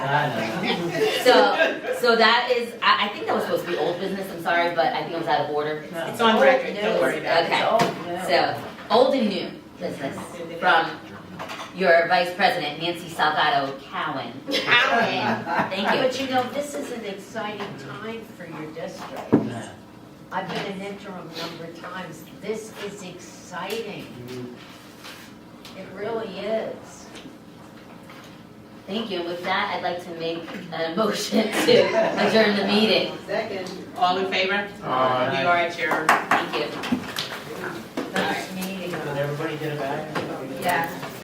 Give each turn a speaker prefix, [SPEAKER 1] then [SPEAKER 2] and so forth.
[SPEAKER 1] I know.
[SPEAKER 2] So, so that is, I, I think that was supposed to be old business, I'm sorry, but I think I was out of order.
[SPEAKER 1] No.
[SPEAKER 3] It's on record, don't worry about it.
[SPEAKER 2] Okay.
[SPEAKER 1] Oh,
[SPEAKER 2] So, old and new business from your vice president, Nancy Salgado Cowan.
[SPEAKER 4] Alan.
[SPEAKER 2] Thank
[SPEAKER 4] But
[SPEAKER 2] you.
[SPEAKER 4] you know, this is an exciting time for your district.
[SPEAKER 1] no. No.
[SPEAKER 4] I've been an interim a number of times. This is exciting. It really is.
[SPEAKER 2] Thank you. With that, I'd like to make a motion to adjourn the meeting.
[SPEAKER 5] Second.
[SPEAKER 3] All in favor?
[SPEAKER 1] Aye.
[SPEAKER 3] We are adjourned.
[SPEAKER 2] Thank you.